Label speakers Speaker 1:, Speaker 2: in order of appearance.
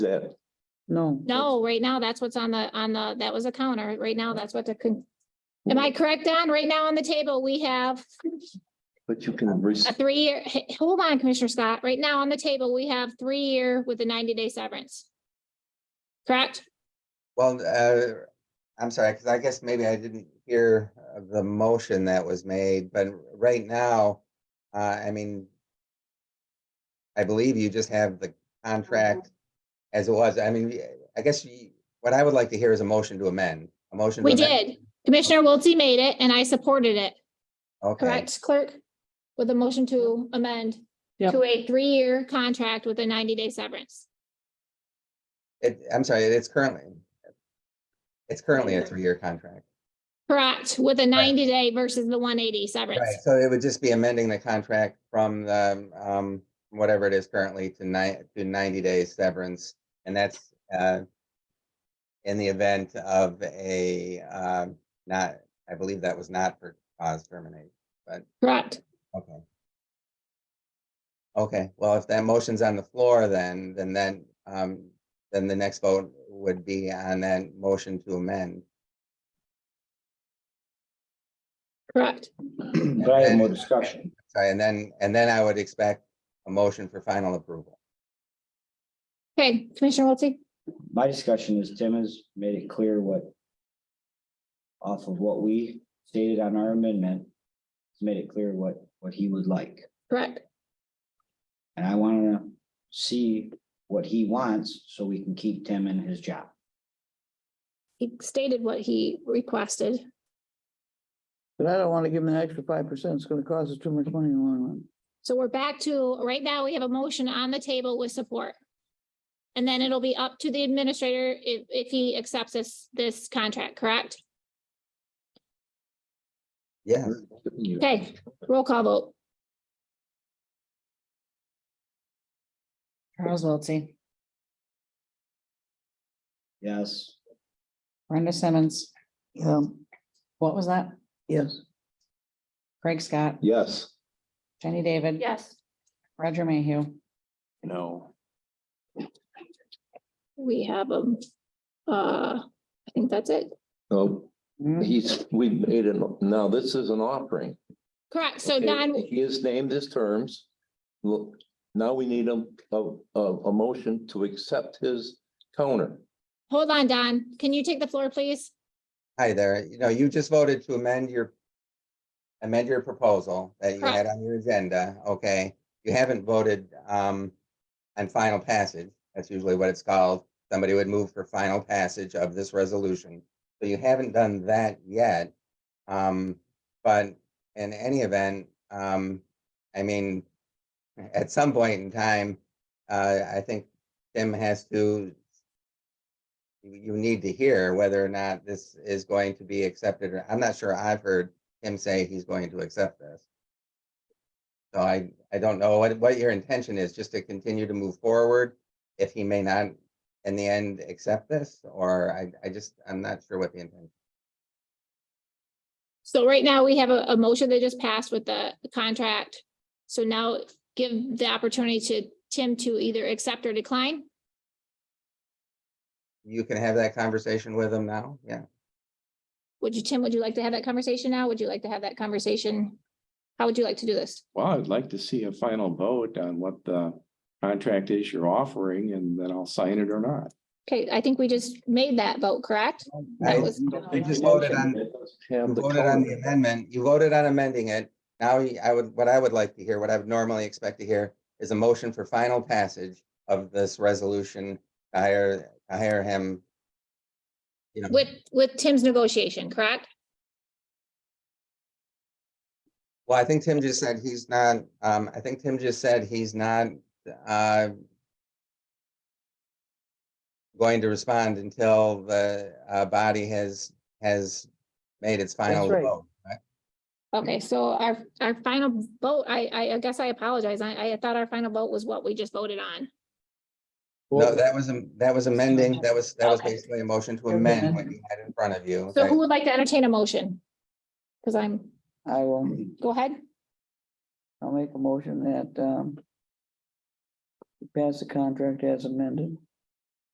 Speaker 1: that,
Speaker 2: No.
Speaker 3: No, right now, that's what's on the, on the, that was a counter. Right now, that's what the, con- am I correct, Don? Right now on the table, we have
Speaker 1: but you can
Speaker 3: a
Speaker 1: receive
Speaker 3: three-year, h- hold on, Commissioner Scott. Right now on the table, we have three-year with a ninety-day severance. Correct?
Speaker 4: Well, uh, I'm sorry, because I guess maybe I didn't hear uh, the motion that was made, but right now, uh, I mean, I believe you just have the
Speaker 3: Mm-hmm.
Speaker 4: contract as it was. I mean, I guess you- what I would like to hear is a motion to amend, a motion. to
Speaker 3: We
Speaker 4: amend-
Speaker 3: did. Commissioner Wiltie made it and I supported it.
Speaker 4: Okay,
Speaker 3: Correct, clerk? With a motion to amend
Speaker 2: Yep.
Speaker 3: to a three-year contract with a ninety-day severance.
Speaker 4: It- I'm sorry, it's currently, it's currently
Speaker 3: Mm-hmm.
Speaker 4: a three-year contract.
Speaker 3: Correct, with a ninety-day versus the one eighty
Speaker 4: Right,
Speaker 3: severance.
Speaker 4: so it would just be amending the contract from the, um, whatever it is currently to nine, to ninety days severance, and that's, uh, in the event of a, um, not, I believe that was not for cause termination,
Speaker 3: Correct.
Speaker 4: okay. Okay, well, if that motion's on the floor, then, then then, um, then the next vote would be on that motion to amend.
Speaker 3: Correct.
Speaker 5: Can I have more discussion?
Speaker 4: Sorry, and then, and then I would expect a motion for final approval.
Speaker 3: Okay, Commissioner Wiltie?
Speaker 5: My discussion is Tim has made it clear what off of what we stated on our amendment, he's made it clear what, what he would like.
Speaker 3: Correct.
Speaker 5: And I want to see what he wants so we can keep Tim in his job.
Speaker 3: He stated what he requested.
Speaker 2: But I don't want to give them an extra five percent. It's going to cost us too much money in the long run.
Speaker 3: So we're back to, right now, we have a motion on the table with support. And then it'll be up to the administrator if, if he accepts this, this contract, correct?
Speaker 4: Yes.
Speaker 3: Okay, roll call vote.
Speaker 6: Charles Wiltie,
Speaker 5: Yes,
Speaker 6: Brenda Simmons, um,
Speaker 2: Yeah,
Speaker 6: what was that?
Speaker 2: yes.
Speaker 6: Craig Scott,
Speaker 1: yes.
Speaker 6: Jenny David.
Speaker 3: Yes.
Speaker 6: Roger Mayhew.
Speaker 1: No.
Speaker 3: We have, um, uh, I think that's it.
Speaker 7: No,
Speaker 4: Mm-hmm.
Speaker 7: he's, we made an, now this is an offering.
Speaker 3: Correct, so
Speaker 7: Okay,
Speaker 3: Don,
Speaker 7: He has named his terms. Look, now we need a, a, a, a motion to accept his counter.
Speaker 3: hold on, Don, can you take the floor, please?
Speaker 4: Hi there, you know, you just voted to amend your amend your proposal that you had on your agenda, okay? You haven't voted um on final passage. That's usually what it's called. Somebody would move for final passage of this resolution. So you haven't done that yet. Um, but in any event, um, I mean, at some point in time, uh, I think Tim has to you, you need to hear whether or not this is going to be accepted. or I'm not sure I've heard him say he's going to accept this. So I, I don't know what, what your intention is, just to continue to move forward if he may not in the end accept this, or I, I just, I'm not sure what the intent.
Speaker 3: So right now, we have a, a motion that just passed with the contract. So now give the opportunity to Tim to either accept or decline.
Speaker 4: You can have that conversation with him now, yeah.
Speaker 3: Would you, Tim, would you like to have that conversation now? Would you like to have that conversation? How would you like to do this?
Speaker 8: Well, I'd like to see a final vote on what the contract is you're offering and then I'll sign it or not.
Speaker 3: Okay, I think we just made that vote, correct? That
Speaker 4: I-
Speaker 3: was-
Speaker 4: You just voted on,
Speaker 7: Have
Speaker 4: You
Speaker 7: the
Speaker 4: voted on the
Speaker 7: counter.
Speaker 4: amendment, you voted on amending it. Now, you- I would, what I would like to hear, what I would normally expect to hear is a motion for final passage of this resolution to hire, to hire him. You know,
Speaker 3: With, with Tim's negotiation, correct?
Speaker 4: well, I think Tim just said he's not, um, I think Tim just said he's not, uh, going to respond until the, uh, body has, has made its final
Speaker 2: right.
Speaker 4: vote. right?
Speaker 3: Okay, so our, our final vote, I, I, I guess I apologize. I, I thought our final vote was what we just voted on.
Speaker 4: No, that was, am- that was amending, that was, that was
Speaker 3: Okay.
Speaker 4: basically a motion to
Speaker 6: Okay.
Speaker 4: amend what you had in front of you.
Speaker 3: So
Speaker 4: that-
Speaker 3: who would like to entertain a motion? Because I'm,
Speaker 2: I will,
Speaker 3: go ahead.
Speaker 2: I'll make a motion that, um, we pass the contract as amended.